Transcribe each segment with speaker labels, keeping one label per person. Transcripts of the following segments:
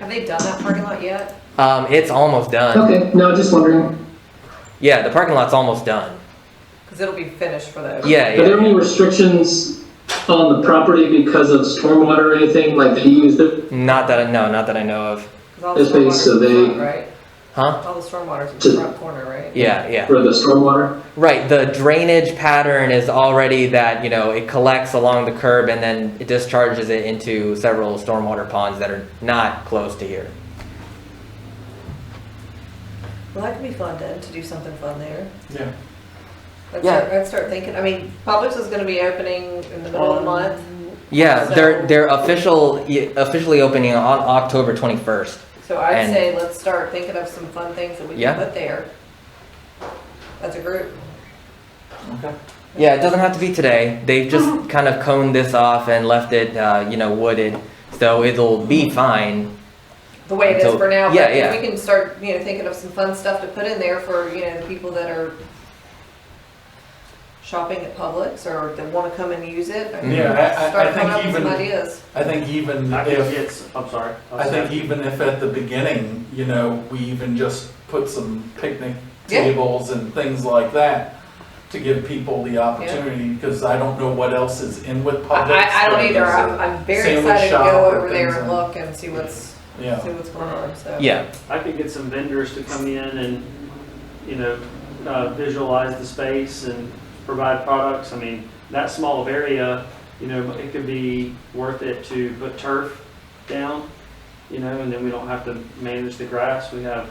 Speaker 1: Have they done that parking lot yet?
Speaker 2: Um, it's almost done.
Speaker 3: Okay, no, just wondering.
Speaker 2: Yeah, the parking lot's almost done.
Speaker 1: Because it'll be finished for the.
Speaker 2: Yeah,
Speaker 3: Are there
Speaker 2: yeah.
Speaker 3: any restrictions on the property because of stormwater or anything, like they used it
Speaker 2: Not that I no, not that I know of.
Speaker 1: 'Cause all the
Speaker 3: It's been
Speaker 1: stormwater's in the
Speaker 3: surveyed.
Speaker 1: front, Right?
Speaker 2: Huh?
Speaker 1: All the stormwater's in
Speaker 3: To-
Speaker 1: the front corner, right?
Speaker 2: Yeah, yeah.
Speaker 3: for the stormwater?
Speaker 2: Right. The drainage pattern is already that you know it collects along the curb and then it discharges it into several stormwater ponds that are not close to here.
Speaker 1: Well, that could be fun then, to do something fun there.
Speaker 4: Yeah.
Speaker 1: Let's
Speaker 2: Yeah.
Speaker 1: start, let's start thinking, I mean, Publix is gonna be opening in the middle of the month.
Speaker 2: Yeah,
Speaker 1: So-
Speaker 2: they're they're official officially opening on October 21st.
Speaker 1: So I'd
Speaker 2: And-
Speaker 1: say let's start thinking of some fun things that we
Speaker 2: Yeah.
Speaker 1: can put there. As a group.
Speaker 4: Okay.
Speaker 2: Yeah, it doesn't have to be today. They've just kind of coned this off and left it, uh, you know, wooded. So it'll be fine.
Speaker 1: the way it is
Speaker 2: Until-
Speaker 1: for now.
Speaker 2: yeah,
Speaker 1: but if
Speaker 2: yeah.
Speaker 1: We can start, you know, thinking of some fun stuff to put in there for, you know, the people that are shopping at Publix or that wanna come and use it. I mean,
Speaker 4: Yeah, I- I, I
Speaker 1: Start coming up
Speaker 4: think
Speaker 1: with some
Speaker 4: even,
Speaker 1: ideas.
Speaker 4: I think even
Speaker 5: I think
Speaker 4: if,
Speaker 5: it's, I'm sorry.
Speaker 4: I think even if at the beginning, you know, we even just put some picnic
Speaker 1: Yeah.
Speaker 4: tables and things like that to give people the opportunity, because I don't know what else is in with
Speaker 1: I,
Speaker 4: Publix.
Speaker 1: I- I don't
Speaker 4: but
Speaker 1: either.
Speaker 4: there's a-
Speaker 1: I'm, I'm very
Speaker 4: sandwich
Speaker 1: excited to
Speaker 4: shop
Speaker 1: go
Speaker 4: or
Speaker 1: over there
Speaker 4: things
Speaker 1: and
Speaker 4: like-
Speaker 1: look and see what's, see
Speaker 4: Yeah,
Speaker 1: what's going on, so.
Speaker 2: Yeah,
Speaker 5: I could get some vendors to come in and, you know, uh, visualize the space and provide products. I mean, that small of area, you know, it could be worth it to put turf down, you know, and then we don't have to manage the grass. We have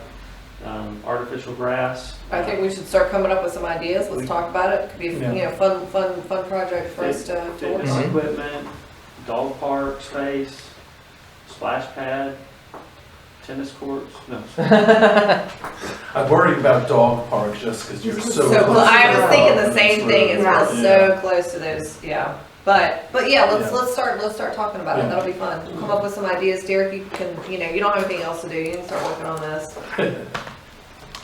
Speaker 5: um, artificial grass.
Speaker 1: I think we should start coming up with some ideas. Let's talk about it. Could be, you
Speaker 4: Yeah.
Speaker 1: know, fun, fun, fun project for us to, to work
Speaker 5: Fitness
Speaker 1: on.
Speaker 2: Mhm.
Speaker 5: equipment, dog park space, splash pad, tennis courts, no.
Speaker 4: I worry about dog park just because you're
Speaker 1: So,
Speaker 4: so.
Speaker 1: well,
Speaker 4: close
Speaker 1: I
Speaker 4: to
Speaker 1: was thinking the
Speaker 4: the dog
Speaker 1: same
Speaker 4: and
Speaker 1: thing,
Speaker 4: it's
Speaker 1: it's
Speaker 4: really-
Speaker 1: real
Speaker 4: Yeah.
Speaker 1: so close to those, yeah, but, but yeah, let's,
Speaker 4: Yeah.
Speaker 1: let's start, let's start talking about it,
Speaker 4: Yeah.
Speaker 1: that'll be fun. Come up with some ideas, Derek, you can, you know, you don't have anything else to do, you can start working on this.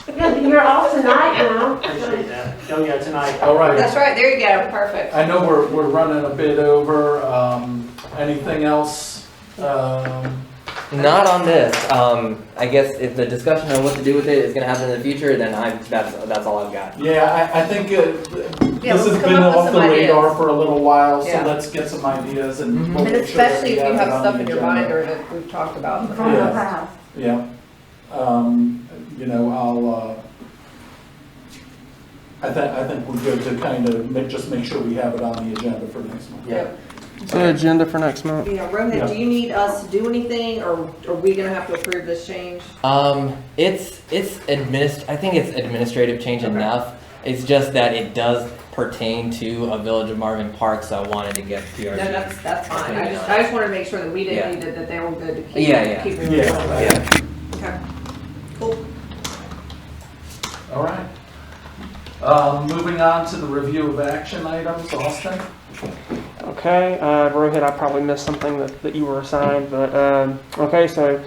Speaker 6: Good, You're off tonight now.
Speaker 5: Appreciate that. Oh, yeah, tonight.
Speaker 4: All right.
Speaker 1: That's right, there you go, perfect.
Speaker 4: I know we're, we're running a bit over, um, anything else? Um,
Speaker 2: not on this. Um, I guess if the discussion on what to do with it is going to happen in the future, then I'm that's that's all I've got.
Speaker 4: yeah, I, I think it,
Speaker 1: Yeah,
Speaker 4: this
Speaker 1: let's
Speaker 4: has
Speaker 1: come
Speaker 4: been
Speaker 1: up with
Speaker 4: off
Speaker 1: some
Speaker 4: the radar
Speaker 1: ideas.
Speaker 4: for a little while, so
Speaker 1: Yeah. Mm-hmm.
Speaker 4: let's get some ideas and.
Speaker 2: Mhm.
Speaker 4: we'll
Speaker 1: And
Speaker 4: make sure that
Speaker 1: especially if
Speaker 4: we
Speaker 1: you
Speaker 4: it
Speaker 1: have
Speaker 4: on
Speaker 1: stuff
Speaker 4: the
Speaker 1: in your
Speaker 4: agenda.
Speaker 1: mind or that we've talked about.
Speaker 6: From the house.
Speaker 4: Yeah, um, you know, I'll, uh, I think, I think we're good to kind of make, just make sure we have it on the agenda for next month.
Speaker 2: Yeah.
Speaker 4: The
Speaker 2: agenda for next month?
Speaker 1: Yeah, Rohit,
Speaker 4: Yeah.
Speaker 1: do you need us to do anything, or are we gonna have to approve this change?
Speaker 2: Um, it's it's administ. I think it's administrative change
Speaker 1: Okay.
Speaker 2: enough. It's just that it does pertain to a Village of Marvin Park, so I wanted to get
Speaker 1: No,
Speaker 2: PRG.
Speaker 1: that's, that's fine, I just, I just wanted to make sure that we didn't need it, that they were good to keep.
Speaker 2: Yeah, yeah.
Speaker 1: keep it
Speaker 4: Yeah,
Speaker 1: going.
Speaker 4: yeah,
Speaker 1: Okay, cool.
Speaker 4: all right. Um, moving on to the review of action items, Austin?
Speaker 7: Okay, uh, Rohit, I probably missed something that, that you were assigned, but, um, okay, so,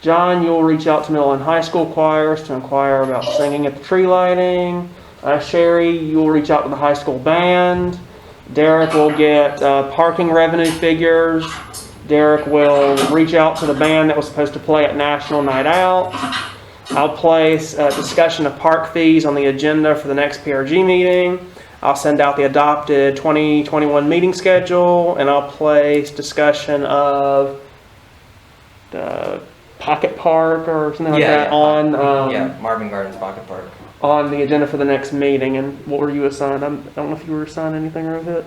Speaker 7: John, you'll reach out to Millen High School choirs to inquire about singing at the tree lighting. Uh, Sherry, you'll reach out to the high school band. Derek will get, uh, parking revenue figures. Derek will reach out to the band that was supposed to play at National Night Out. I'll place a discussion of park fees on the agenda for the next PRG meeting. I'll send out the adopted 2021 meeting schedule, and I'll place discussion of the pocket park or something like
Speaker 2: Yeah,
Speaker 7: that
Speaker 2: yeah.
Speaker 7: on, um,
Speaker 2: yeah, Marvin Gardens Pocket Park.
Speaker 7: on the agenda for the next meeting. And what were you assigned? I'm, I don't know if you were assigned anything, Rohit?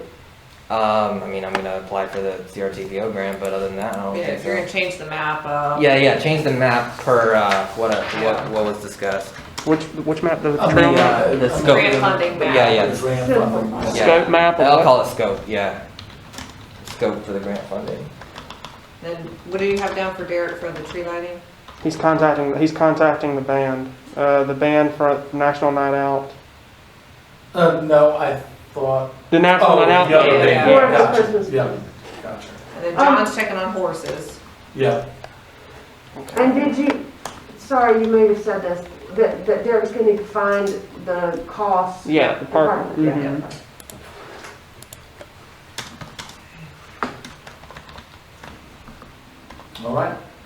Speaker 2: Um, I mean, I'm gonna apply for the CRTPO grant, but other than that, I don't
Speaker 1: Yeah,
Speaker 2: think
Speaker 1: if
Speaker 2: so.
Speaker 1: you're gonna change the map, uh.
Speaker 2: Yeah, yeah, change the map per uh, what, uh, what what was discussed.
Speaker 7: Which, which map, the
Speaker 4: On
Speaker 7: trail map?
Speaker 4: uh,
Speaker 2: Oh, the
Speaker 4: on
Speaker 2: scope.
Speaker 1: Grant funding map.
Speaker 2: Yeah, yeah.
Speaker 4: Grant funding.
Speaker 2: Yeah.
Speaker 7: Scope map? or
Speaker 2: I'll
Speaker 7: what?
Speaker 2: call it scope. Yeah, scope for the grant funding.
Speaker 1: Then what do you have down for Derek for the tree lighting?
Speaker 7: He's contacting, he's contacting the band, uh, the band for National Night Out.
Speaker 4: Uh, no, I thought,
Speaker 7: The National
Speaker 4: oh,
Speaker 7: Night
Speaker 4: the
Speaker 7: Out.
Speaker 4: other
Speaker 1: yeah,
Speaker 4: thing,
Speaker 1: yeah.
Speaker 4: yeah,
Speaker 6: Or the
Speaker 4: gotcha,
Speaker 6: Christmas
Speaker 4: yeah, gotcha,
Speaker 1: And then John's checking on horses.
Speaker 4: yeah.
Speaker 6: And did you, sorry, you may have said this, that, that Derek's gonna find the cost.
Speaker 7: Yeah, the park.
Speaker 6: Apartment, yeah.
Speaker 7: mhm.
Speaker 4: All right,